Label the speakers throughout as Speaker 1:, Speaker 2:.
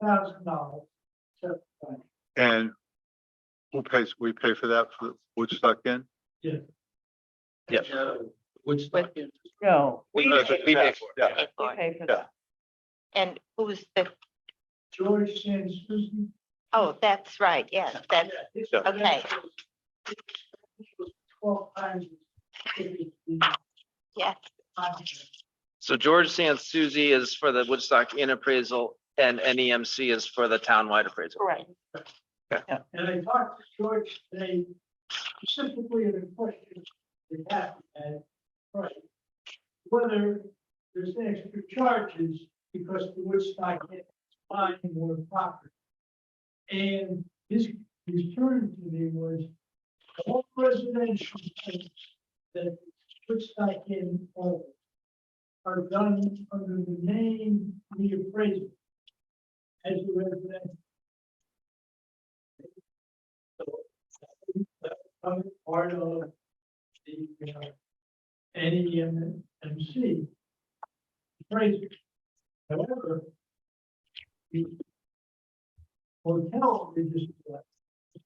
Speaker 1: thousand dollars.
Speaker 2: And who pays, we pay for that for Woodstock in?
Speaker 3: Yes.
Speaker 4: Which.
Speaker 5: But-
Speaker 4: We
Speaker 5: No,
Speaker 3: We
Speaker 2: Uh,
Speaker 3: we pay for it. yeah.
Speaker 5: we pay
Speaker 3: Yeah.
Speaker 5: for that. And who's the,
Speaker 1: George and Susan.
Speaker 5: oh, that's right, yes, that's,
Speaker 3: Yeah.
Speaker 5: okay.
Speaker 1: Twelve times.
Speaker 5: yes.
Speaker 3: So George Sansouzi is for the Woodstock in appraisal and NEMC is for the townwide appraisal.
Speaker 5: Right.
Speaker 1: And I talked to George today specifically in the question that happened at, right? Whether there's extra charges because the Woodstock is buying more property. And his, his turn to me was all residential things that Woodstock in all are done under the name reappraisal as a residential. I'm part of the, uh, NEMC. Crazy. However. The hotel we just left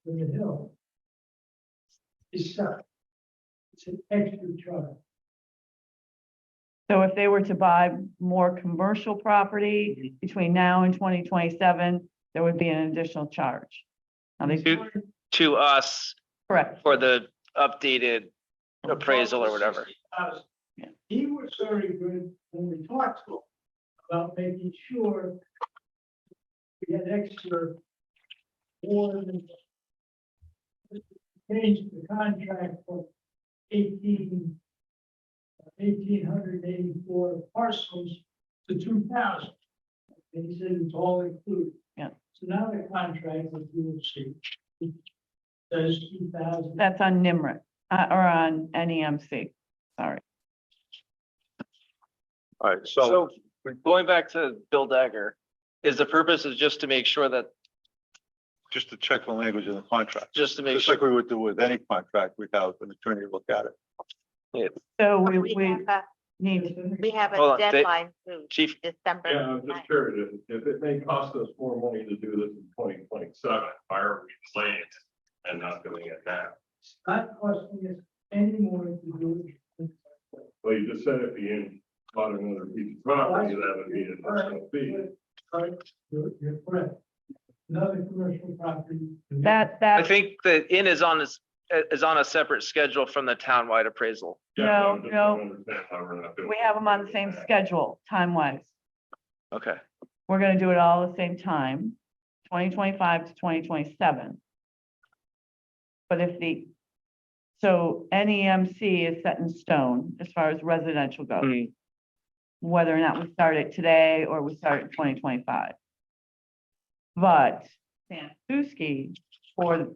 Speaker 1: in the hill. Is set. It's an extra charge.
Speaker 5: So if they were to buy more commercial
Speaker 3: Mm-hmm.
Speaker 5: property between now and twenty twenty-seven, there would be an additional charge. Now they,
Speaker 3: Two- To us
Speaker 5: correct,
Speaker 3: for the updated appraisal or whatever.
Speaker 1: $60,000.
Speaker 5: Yeah.
Speaker 1: He was very good when we talked to him about making sure we had extra more than changed the contract for eighteen eighteen hundred eighty-four parcels to two thousand. And he said it's all included.
Speaker 5: Yeah.
Speaker 1: So now the contract, that you will see, does two thousand.
Speaker 5: that's on NIMRIC, uh, or on NEMC, sorry.
Speaker 2: All right, so
Speaker 3: So going back to Bill Dagger, is the purpose is just to make sure that,
Speaker 2: just to check the language of the contract,
Speaker 3: just to make
Speaker 2: just
Speaker 3: sure.
Speaker 2: like we would do with any contract, we have an attorney look at it.
Speaker 5: So we,
Speaker 6: We
Speaker 5: we
Speaker 6: have a-
Speaker 5: need,
Speaker 6: we have
Speaker 3: Hold
Speaker 6: a
Speaker 3: on, they-
Speaker 6: deadline to
Speaker 3: Chief,
Speaker 6: December.
Speaker 7: Yeah, I'm just
Speaker 6: 9th.
Speaker 7: curious, if if it may cost us more money to do this in twenty twenty-seven, why are we late and not doing it now?
Speaker 1: It's not costing us any more to do it.
Speaker 7: Well, you just said if you bought another piece of property, that would be an additional fee.
Speaker 1: Sorry, you're, you're correct. Another commercial property.
Speaker 5: that,
Speaker 3: I
Speaker 5: that,
Speaker 3: think the in is on this, is on a separate schedule from the townwide appraisal.
Speaker 7: Yeah,
Speaker 5: No,
Speaker 7: I'm just
Speaker 5: no.
Speaker 7: don't understand why we're not doing
Speaker 5: we
Speaker 7: it.
Speaker 5: have them on the same schedule, time-wise.
Speaker 3: Okay.
Speaker 5: We're gonna do it all at the same time, twenty twenty-five to twenty twenty-seven. But if the, so NEMC is set in stone as far as residential goes,
Speaker 3: Hmm.
Speaker 5: whether or not we start it today or we start in twenty twenty-five. But Sandusky for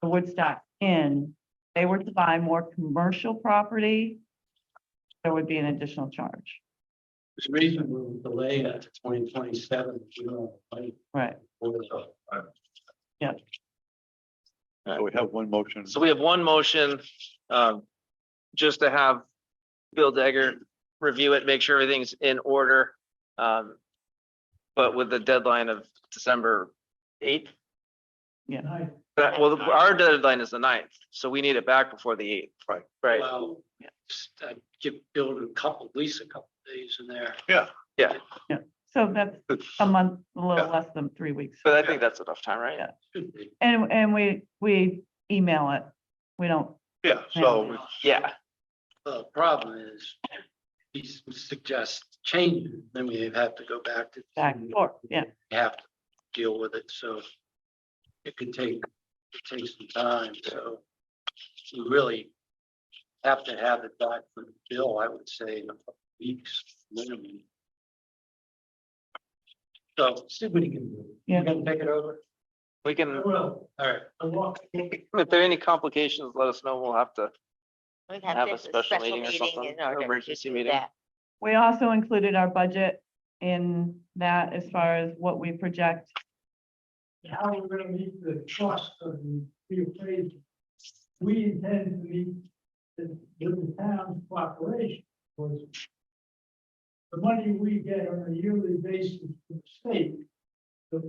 Speaker 5: the Woodstock Inn, they were to buy more commercial property, there would be an additional charge,
Speaker 4: There's a reason we will delay that to twenty twenty-seven, if you don't, like,
Speaker 5: right?
Speaker 4: for the,
Speaker 2: So we have one motion.
Speaker 3: So we have one motion, um, just to have Bill Dagger review it, make sure everything's in order. Um, but with the deadline of December eighth,
Speaker 1: Nice.
Speaker 3: that, well, our deadline is the ninth, so we need it back before the eighth.
Speaker 2: Right.
Speaker 3: Right,
Speaker 4: well, I give Bill a couple, at least a couple days in there.
Speaker 5: So that's
Speaker 2: It's-
Speaker 5: a month, a little
Speaker 2: Yeah.
Speaker 5: less than three weeks.
Speaker 3: but I think that's enough time, right?
Speaker 5: Yeah.
Speaker 4: Should be.
Speaker 5: And, and we, we email it. We don't,
Speaker 2: Yeah, so we-
Speaker 3: Yeah,
Speaker 4: The problem is, he suggests changes, then we have to go back to.
Speaker 5: Back and forth, yeah.
Speaker 4: We Have to deal with it, so it can take, it takes some time, so you really have to have it back from Bill, I would say, in a couple weeks minimum. So see what he can do.
Speaker 5: Yeah.
Speaker 4: You gonna take it over?
Speaker 3: we
Speaker 1: I
Speaker 3: can,
Speaker 1: will,
Speaker 4: All right.
Speaker 1: I walk.
Speaker 3: if there are any complications, let us know. We'll have to,
Speaker 6: We
Speaker 3: have
Speaker 6: have
Speaker 3: a
Speaker 6: this
Speaker 3: special
Speaker 6: as special
Speaker 3: meeting or
Speaker 6: meeting
Speaker 3: something,
Speaker 6: in order to
Speaker 3: emergency
Speaker 6: do
Speaker 3: meeting.
Speaker 6: that.
Speaker 5: we also included our budget in that as far as what we project.
Speaker 1: How we're gonna meet the cost of the reappraisal. We intend to meet the, with the town's cooperation. was The money we get on a yearly basis from the state